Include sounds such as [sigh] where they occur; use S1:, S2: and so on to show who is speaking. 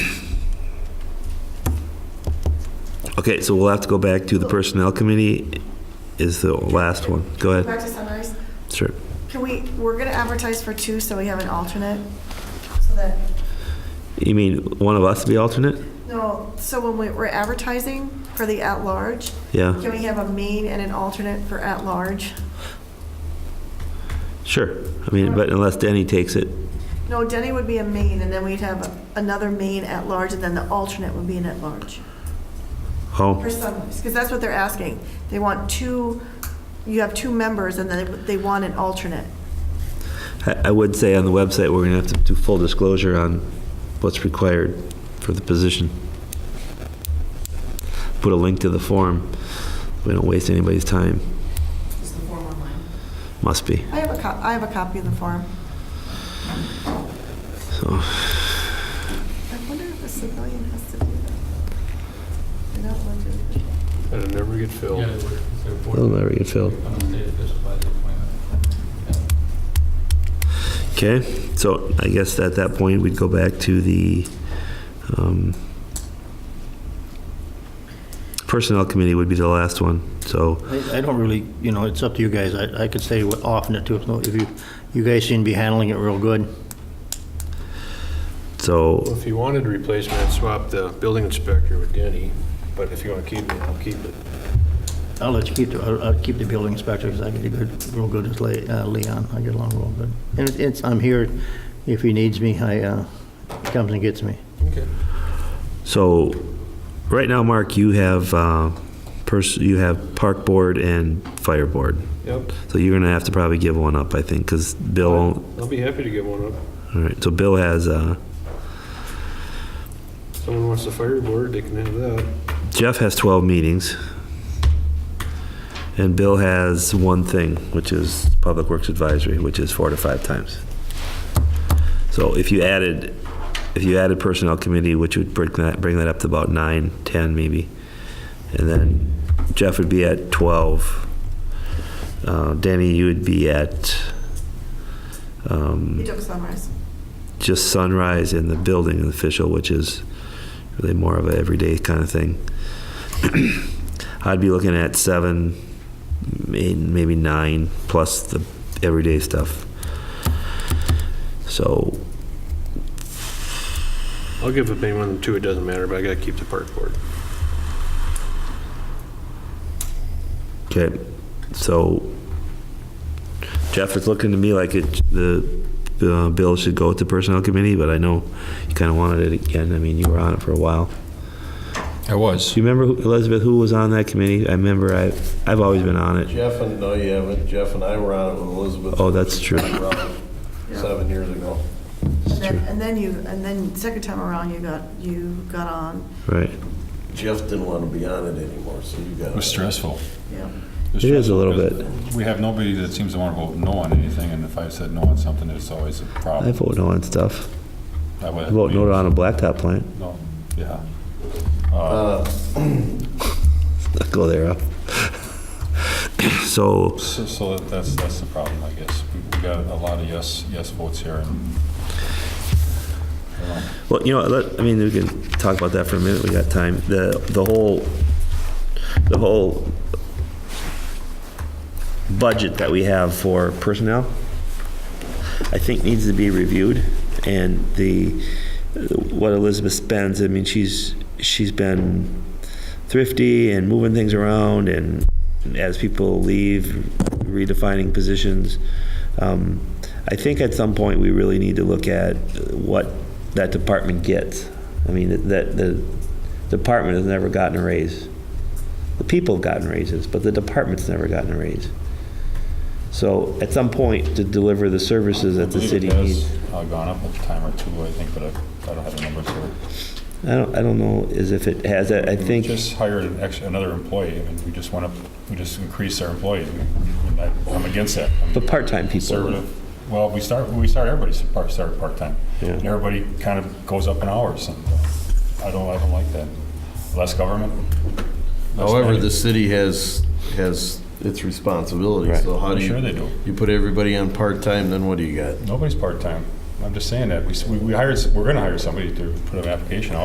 S1: Okay, so we'll have to go back to the Personnel Committee is the last one. Go ahead,
S2: Back to summaries.
S1: sure.
S2: Can we, we're going to advertise for two, so we have an alternate? So that,
S1: You mean one of us to be alternate?
S2: no, so when we- we're advertising for the at-large,
S1: Yeah,
S2: can we have a main and an alternate for at-large?
S1: sure. I mean, but unless Danny takes it,
S2: No, Denny would be a main, and then we'd have another main at-large, and then the alternate would be an at-large.
S1: oh,
S2: For summaries, because that's what they're asking. They want two, you have two members, and then they they want an alternate.
S1: I I would say on the website, we're going to have to do full disclosure on what's required for the position. Put a link to the form. We don't waste anybody's time.
S3: Is the form online?
S1: Must be.
S2: I have a cop, I have a copy of the form.
S1: So,
S2: I wonder if a civilian has to do that. They don't want to.
S4: And it never get filled.
S5: Yeah, it's their board.
S1: it'll never get filled.
S5: I'm a state official by the appointment.
S1: Okay, so I guess at that point, we'd go back to the um, Personnel Committee would be the last one, so,
S6: I I don't really, you know, it's up to you guys. I I could stay off in it too, if you, you guys seem to be handling it real good.
S1: so,
S4: If you wanted a replacement, I'd swap the building inspector with Denny, but if you want to keep me, I'll keep it.
S6: I'll let you keep, the- I'll I'll keep the building inspector, because I get a good, real good with Le- uh, Leon. I get along real good. And it- it's, I'm here if he needs me, I, uh, he comes and gets me.
S4: Okay.
S1: so, right now, Mark, you have, uh, pers- you have Park Board and Fire Board.
S4: Yep,
S1: So you're gonna have to probably give one up, I think, because Bill, all
S4: I'll be happy to give one up.
S1: right, so Bill has, uh,
S4: Someone wants the fire board, they can have that.
S1: Jeff has 12 meetings. And Bill has one thing, which is Public Works Advisory, which is four to five times. So if you added, if you added Personnel Committee, which would bring that, bring that up to about nine, 10 maybe. And then Jeff would be at 12. Uh, Danny, you would be at, um,
S2: You took summaries.
S1: just sunrise and the building official, which is really more of an everyday kind of thing. [clears throat] I'd be looking at seven, may- maybe nine, plus the everyday stuff. So,
S4: I'll give up anyone two, it doesn't matter, but I gotta keep the park board.
S1: okay, so Jeff, it's looking to me like it, the uh, bill should go to personnel committee, but I know you kind of wanted it again. I mean, you were on it for a while.
S5: I was.
S1: Do you remember, who- Elizabeth, who was on that committee? I remember I, I've always been on it.
S7: Jeff and, no, you haven't. Jeff and I were on it with Elizabeth.
S1: Oh, that's true.
S7: Seven years ago.
S2: And then, and then you, and then second time around, you got, you got on,
S1: Right.
S7: Jeff didn't want to be on it anymore, so you got
S5: It was stressful.
S2: yeah.
S5: was
S1: It is a
S5: stressful
S1: little
S5: because We have nobody that seems to want to vote no on anything, and if I said no on something, it's always a
S1: I
S5: problem.
S1: vote no on stuff.
S5: I would-
S1: I vote no on a blacktop plant.
S5: No, yeah.
S1: Go there, up. [coughs] So,
S5: So, so that's, that's the problem, I guess. We we got a lot of yes, yes votes here, and
S1: well, you know, let, I mean, we can talk about that for a minute. We got time. The, the whole, the whole budget that we have for personnel, I think needs to be reviewed. And the, what Elizabeth spends, I mean, she's, she's been thrifty and moving things around and as people leave, redefining positions. Um, I think at some point, we really need to look at what that department gets. I mean, that, the department has never gotten a raise. The people have gotten raises, but the department's never gotten a raise. So at some point, to deliver the services that the
S5: believe it
S1: city
S5: has,
S1: needs.
S5: uh, Gone up a time or two, I think, but I I don't have the numbers here.
S1: I don't, I don't know as if it has, I I
S5: We
S1: think,
S5: Just hired an ex- another employee, I mean, we just went up, we just increased our employees. And I- I'm against that. I'm
S1: but part-time people.
S5: Conservative. Well, we start, we start, everybody part- started part-time.
S1: Yeah.
S5: And everybody kind of goes up in hours, and I don't, I don't like that. Less government. less
S7: However,
S5: money.
S7: Oh, the city has, has its responsibility,
S1: Right.
S7: so how
S5: I'm
S7: do you?
S5: sure they do.
S7: You put everybody on part-time, then what do you got?
S5: Nobody's part-time. I'm just saying that. We s- We we hired, s- we're going to hire somebody to put an application out.